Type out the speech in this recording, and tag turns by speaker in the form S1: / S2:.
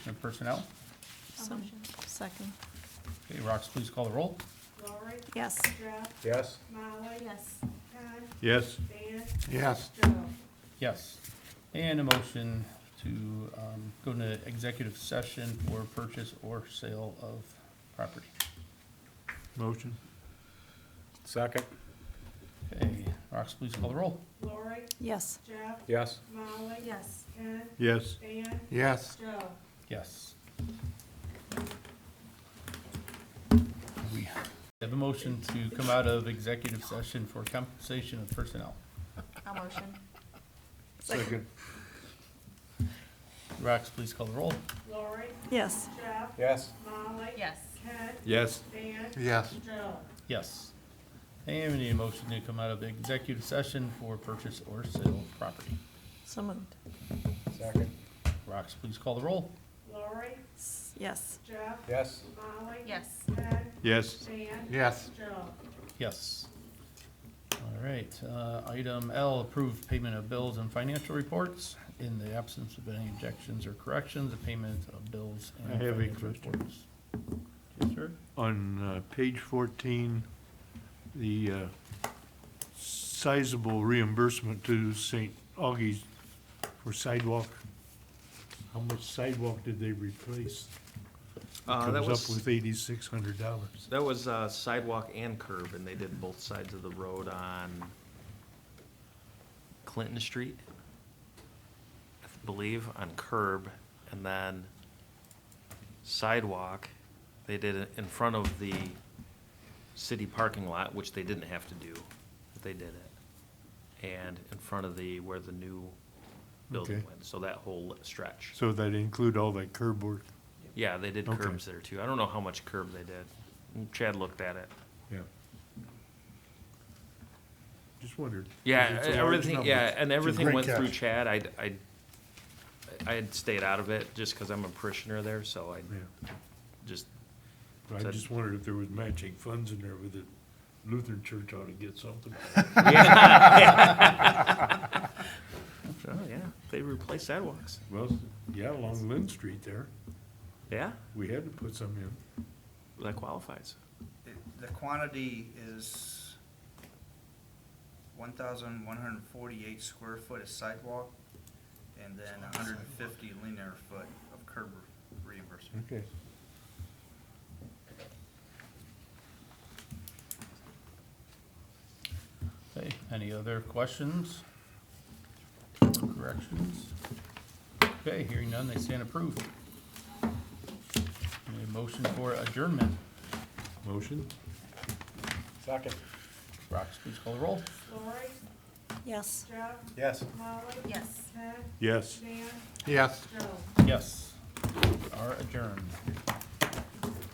S1: and personnel.
S2: So moved. Second.
S1: Okay, Rox, please call the roll.
S3: Lowry,
S2: Yes.
S3: Strap,
S4: Yes.
S3: Molly.
S2: Yes.
S3: Con,
S4: Yes.
S3: Van,
S4: Yes.
S3: Joe.
S1: Yes. And a motion to um, go into executive session for purchase or sale of property.
S4: Motion. Second.
S1: Okay, Rox, please call the roll.
S3: Lowry,
S2: Yes.
S3: Strap,
S4: Yes.
S3: Molly.
S2: Yes.
S3: Con,
S4: Yes.
S3: Van,
S4: Yes.
S3: Joe.
S1: Yes. We have a motion to come out of executive session for compensation of personnel.
S2: I'll motion.
S4: Second.
S1: Rox, please call the roll.
S3: Lowry,
S2: Yes.
S3: Strap,
S4: Yes.
S3: Molly.
S2: Yes.
S3: Con,
S4: Yes.
S3: Van,
S4: Yes.
S3: Joe.
S1: Yes. And we need a motion to come out of executive session for purchase or sale of property.
S2: So moved.
S4: Second.
S1: Rox, please call the roll.
S3: Lowry,
S2: Yes.
S3: Strap,
S4: Yes.
S3: Molly.
S2: Yes.
S3: Con,
S4: Yes.
S3: Van,
S4: Yes.
S3: Joe.
S1: Yes. All right, uh, item L, approved payment of bills and financial reports. In the absence of any objections or corrections, the payment of bills
S5: I
S1: and
S5: have a
S1: financial
S5: question.
S1: reports. Yes, sir?
S5: On uh, page 14, the uh, sizable reimbursement to St. Augie's for sidewalk, how much sidewalk did they replace?
S6: Uh, that
S5: Comes up
S6: was,
S5: with $8,600.
S6: that was uh, sidewalk and curb, and they did both sides of the road on Clinton Street, I believe, on curb, and then sidewalk, they did it in front of the city parking lot, which they didn't have to do, but they did it. And in front of the, where the new building
S5: Okay.
S6: went, so that whole stretch.
S5: So that include all that curb work?
S6: Yeah, they did
S5: Okay.
S6: curbs there too. I don't know how much curb they did. Chad looked at it.
S5: Yeah. Just wondered. 'cause
S6: Yeah, uh,
S5: it's a large
S6: everything,
S5: number.
S6: yeah,
S5: It's
S6: and
S5: a
S6: everything
S5: great
S6: went through
S5: catch.
S6: Chad. I, I, I had stayed out of it just because I'm a parishioner there, so I
S5: Yeah.
S6: just,
S5: But I
S6: Said-
S5: just wondered if there was matching funds in there with it. Lutheran Church ought to get something.
S6: oh yeah, they replaced sidewalks.
S5: Well, yeah, along Lynn Street there,
S6: Yeah,
S5: we had to put some in.
S6: that qualifies.
S7: The- The quantity is one thousand one hundred and forty-eight square foot of sidewalk and then hundred and fifty linear foot of curb reimbursement.
S5: Okay.
S1: Okay, any other questions? Corrections? Okay, hearing none, they stand approved. Need a motion for adjournment.
S5: Motion?
S4: Second.
S1: Rox, please call the roll.
S3: Lowry,
S2: Yes.
S3: Strap,
S4: Yes.
S3: Molly.
S2: Yes.
S3: Con,
S5: Yes.
S3: Van,
S4: Yes.
S3: Joe.
S1: Yes, we are adjourned.